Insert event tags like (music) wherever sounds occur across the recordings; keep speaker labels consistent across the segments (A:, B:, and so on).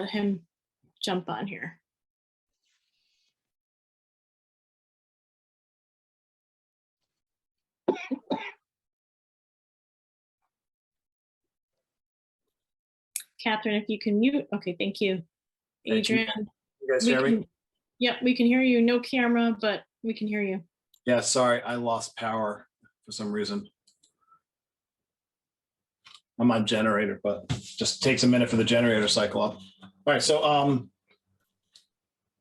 A: let him jump on here. Catherine, if you can mute, okay, thank you.
B: you.
A: Adrian,
B: You guys
A: we
B: hear me?
A: can, yep, we can hear you. No camera, but we can hear you.
B: Yeah, sorry, I lost power for some reason. I'm on generator, but just takes a minute for the generator to cycle up. All right, so, um,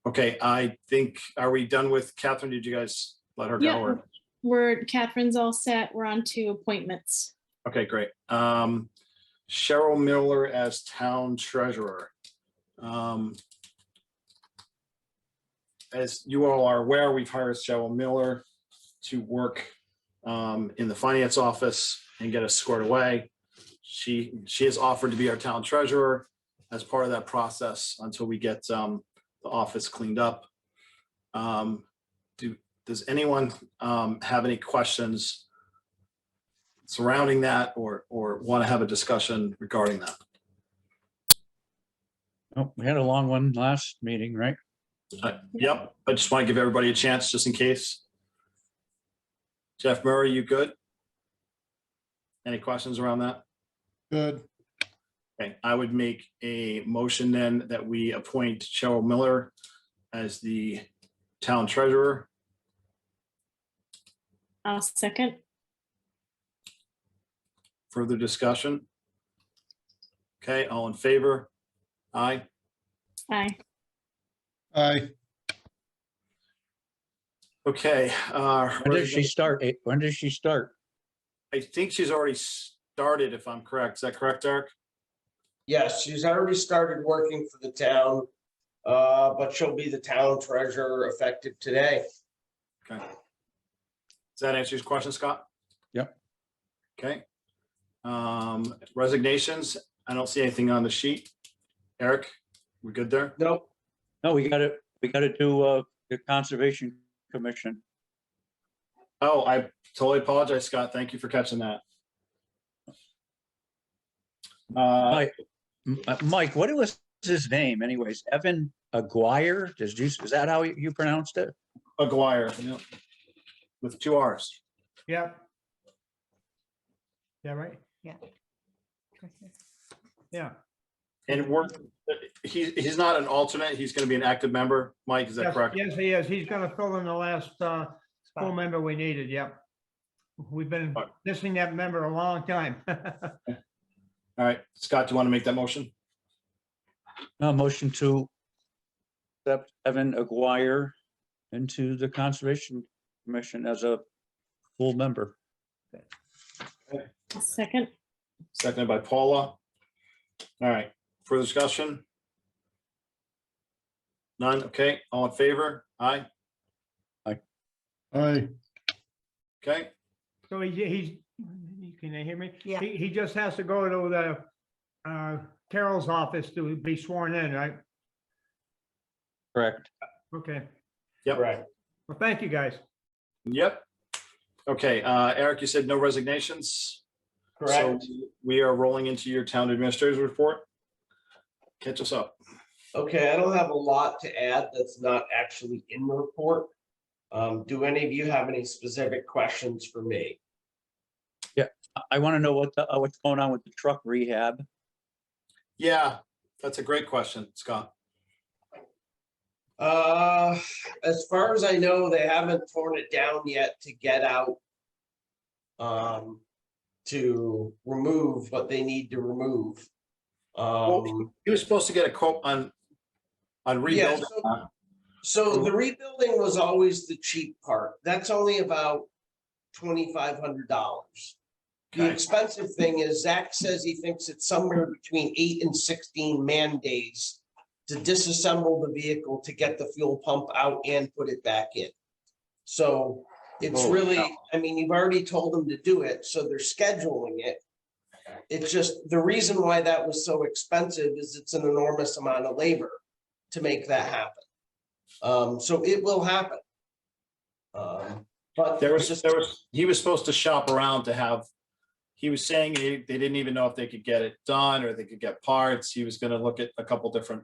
B: okay, I think, are we done with Catherine? Did you guys let her go?
A: Yeah.
B: or-
A: We're, Catherine's all set. We're on to appointments.
B: Okay, great. Um, Cheryl Miller as town treasurer. Um, As you all are aware, we've hired Cheryl Miller to work um, in the finance office and get us squared away. She, she has offered to be our town treasurer as part of that process until we get um, the office cleaned up. Um, Do, does anyone um, have any questions surrounding that or, or want to have a discussion regarding that?
C: Oh, we had a long one last meeting, right?
B: Uh, Yep, I just want to give everybody a chance just in case. Jeff Murray, you good? Any questions around that?
D: Good.
B: Okay, I would make a motion then that we appoint Cheryl Miller as the town treasurer.
A: I'll second.
B: Further discussion? Okay, all in favor? Aye.
A: Aye.
D: Aye.
B: Okay. uh,
C: When does she start? Eh, When does she start?
B: I think she's already started, if I'm correct. Is that correct, Eric?
E: Yes, she's already started working for the town, uh, but she'll be the town treasurer effective today.
B: Okay. Does that answer your question, Scott?
C: Yep.
B: Okay. Um, resignations, I don't see anything on the sheet. Eric, we good there?
E: Nope,
C: No, we gotta, we gotta do, uh, the Conservation Commission.
B: Oh, I totally apologize, Scott. Thank you for catching that. Uh,
C: M- uh, Mike, what was his name anyways? Evan Aguirre? Does you, is that how you- you pronounced it?
B: Aguirre, yep. With two Rs.
D: Yep. Yeah, right. Yeah.
B: And we're, he, he's not an alternate. He's going to be an active member. Mike, is that
D: Yes,
B: correct?
D: Yes, he is. He's gonna fill in the last uh, full member we needed, yep. We've been
B: Alright.
D: missing that member a long time. (laughs)
B: All right, Scott, do you want to make that motion?
C: No, motion to accept Evan Aguirre into the Conservation Commission as a full member.
A: I'll second.
B: Seconded by Paula. All right, further discussion? None, okay, all in favor? Aye,
D: Aye.
B: okay,
D: So he, he's, can you hear me?
F: Yeah.
D: He, he just has to go to the uh, Carol's office to be sworn in, right?
C: Correct.
D: Okay.
B: yep,
E: right.
D: Well, thank you, guys.
B: yep. Okay, uh, Eric, you said no resignations?
E: Correct.
B: So We are rolling into your town administrator's report. Catch us up.
E: Okay, I don't have a lot to add that's not actually in the report. Um, do any of you have any specific questions for me?
C: I- I want to know what, the- uh, what's going on with the truck rehab.
B: Yeah, that's a great question, Scott.
E: Uh, as far as I know, they haven't torn it down yet to get out. Um, to remove what they need to remove. Um,
B: He was supposed to get a quote on, on rebuilding.
E: so- so the rebuilding was always the cheap part. That's only about twenty-five hundred dollars. The
B: Okay.
E: expensive thing is Zach says he thinks it's somewhere between eight and sixteen man days to disassemble the vehicle to get the fuel pump out and put it back in. So it's
B: Holy
E: really,
B: cow.
E: I mean, you've already told them to do it, so they're scheduling it. It's just, the reason why that was so expensive is it's an enormous amount of labor to make that happen. Um, so it will happen. Um, but
B: There was just, there was, he was supposed to shop around to have, he was saying they, they didn't even know if they could get it done or they could get parts. He was gonna look at a couple different